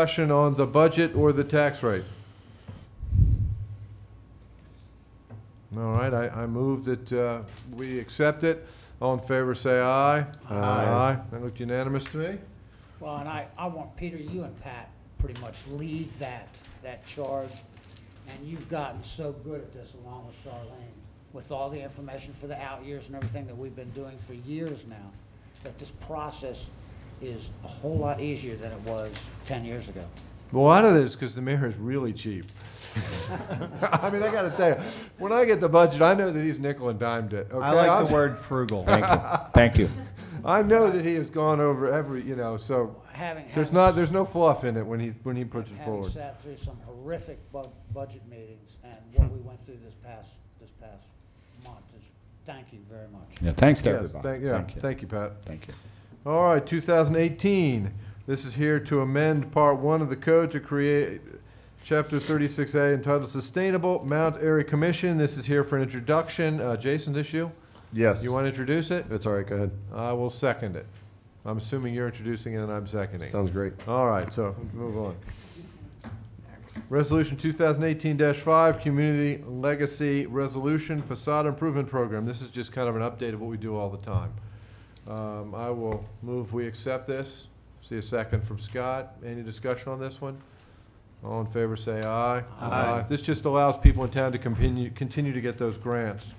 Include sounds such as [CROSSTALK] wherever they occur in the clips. Discussion on the budget or the tax rate? All right, I, I move that uh, we accept it. All in favor, say aye. Aye. That looked unanimous to me. Well, and I, I want Peter, you and Pat pretty much lead that, that charge. And you've gotten so good at this along with Charlene, with all the information for the out years and everything that we've been doing for years now, that this process is a whole lot easier than it was ten years ago. Well, a lot of it is because the mayor is really cheap. [LAUGHS] I mean, I gotta tell you, when I get the budget, I know that he's nickel and dimed it, okay? I like I'm- the word frugal. Thank you. [LAUGHS] Thank you. I know that he has gone over every, you know, so Having, there's having, not, there's no fluff in it when he, when he puts it having forward. sat through some horrific bu- budget meetings and what we went through this past, this past month is, thank you very much. Yeah, thanks to Yes, everybody. thank- Yeah, Thank you. thank you, Pat. Thank you. All right, 2018. This is here to amend Part 1 of the code to create Chapter 36A entitled Sustainable Mount Airy Commission. This is here for an introduction. Uh, Jason, this you? Yes. You want to introduce it? It's all right, go ahead. I will second it. I'm assuming you're introducing it and I'm seconding. Sounds great. All right, so move on. Resolution 2018-5, Community Legacy Resolution Facade Improvement Program. This is just kind of an update of what we do all the time. Um, I will move we accept this. See a second from Scott. Any discussion on this one? All in favor, say aye. Aye. This just allows people in town to continue, continue to get those grants.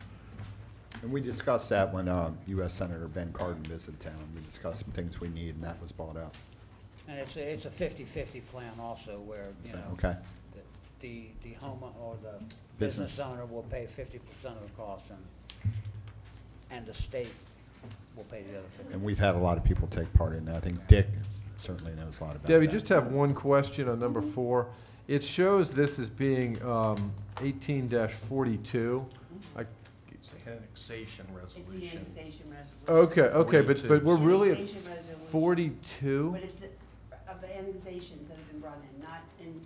And we discussed that when uh, U.S. Senator Ben Cardin visited town. We discussed some things we need, and that was brought up. And it's, a- it's a fifty-fifty plan also where, you So, know, okay, that the, the home or the business owner will pay fifty percent of the cost and, and the state will pay the other fifty. and we've had a lot of people take part in that. I think Dick certainly knows a lot about that. Debbie, just have one question on number four. It shows this as being um, 18-42. I- It's the annexation It's the annexation resolution. resolution. Okay, okay, but, but we're really at Annexation resolution. 42? But it's the, of the annexations that have been brought in, not in,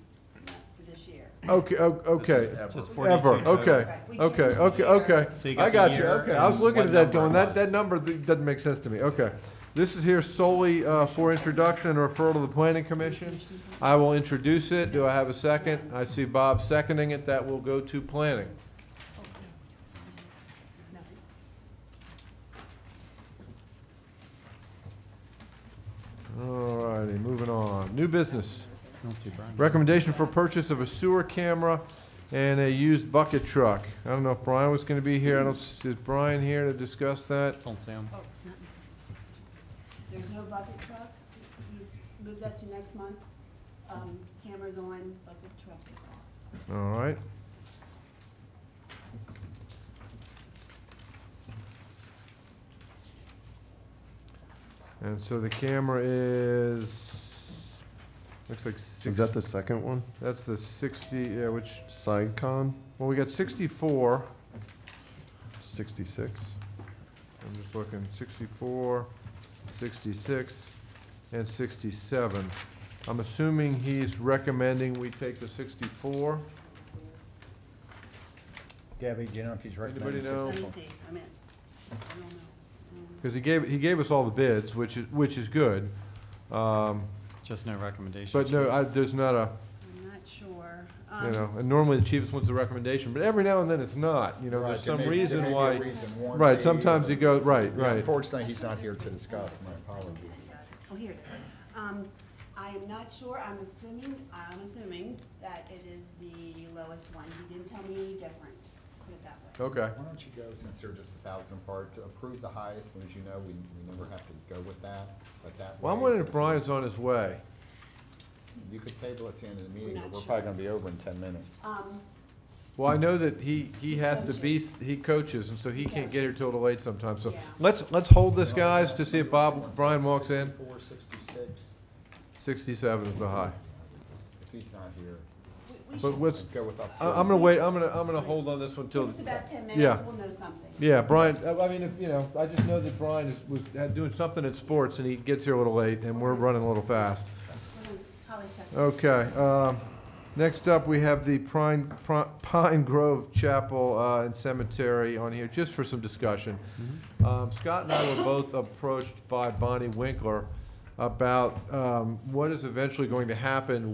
not for this year. Okay, o- This okay. is ever. Just for- Ever, 42. okay, Right, we okay, changed the okay, year. okay. So you I got got the you, year okay. I was and looking what at that number it going, that, was. that number th- doesn't make sense to me, okay. This is here solely uh, for introduction and referral to the planning commission. I will introduce it. Do I have a second? I see Bob seconding it. That will go to planning. No. All righty, moving on. New business. Recommendation for purchase of a sewer camera and a used bucket truck. I don't know if Brian was gonna be here. I don't, s- is Brian here to discuss that? Don't say 'em. Oh, it's not. There's no bucket truck. He's moved that to next month. Um, Cameras on, bucket truck is off. All right. And so the camera is, looks like Is six, that the second one? that's the sixty, yeah, which, SideCon well, we got sixty-four. 66? I'm just looking, 64, 66, and 67. I'm assuming he's recommending we take the 64. Debbie, do you know if he's recommending? Anybody know? Let me successful? see, I'm in. I don't know. Um, I don't know. Because he gave, he gave us all the bids, which is, which is good. Um, Just no recommendation. But no, I, there's not a, I'm not sure. you Um, know, and normally the cheapest one's the recommendation, but every now and then it's not, you know, Right, there's there some may- there may reason be a why. reason, warranty Right, sometimes or- you go, right, Yeah, right. Unfortunately, he's not here to discuss. My apologies. Oh, here it is. Um, I am not sure, I'm assuming, I'm assuming that it is the lowest one. He didn't tell me any different, put it that way. Okay. Why don't you go, since they're just a thousand apart, to approve the highest, and as you know, we, we never have to go with that, but that. Well, I'm way- wondering if Brian's on his way. You could table it to the end of the meeting, not but we're sure. probably gonna be over in ten minutes. Oh. Um, Well, I know that he, he has to be, he coaches, and so he can't get here till the late sometimes, so Yeah. let's, let's hold this, guys, to see if Bob, Brian walks in. Four sixty-six, Sixty-seven is the high. if he's not here, we- we But should, what's, go with up I, I'm gonna wait, I'm gonna, I'm gonna hold on this one give till, us about ten minutes, yeah. we'll know something. yeah, Brian, I, I mean, if, you know, I just know that Brian is, was had- doing something in sports, and he gets here a little late, and we're running a little fast. We're gonna probably check. Oh, Okay, um, next up, we have the Pine, Pri- Pine Grove Chapel uh, and Cemetery on here, just for some discussion. Um, Scott and I were both approached by Bonnie Winkler about um, what is eventually going to happen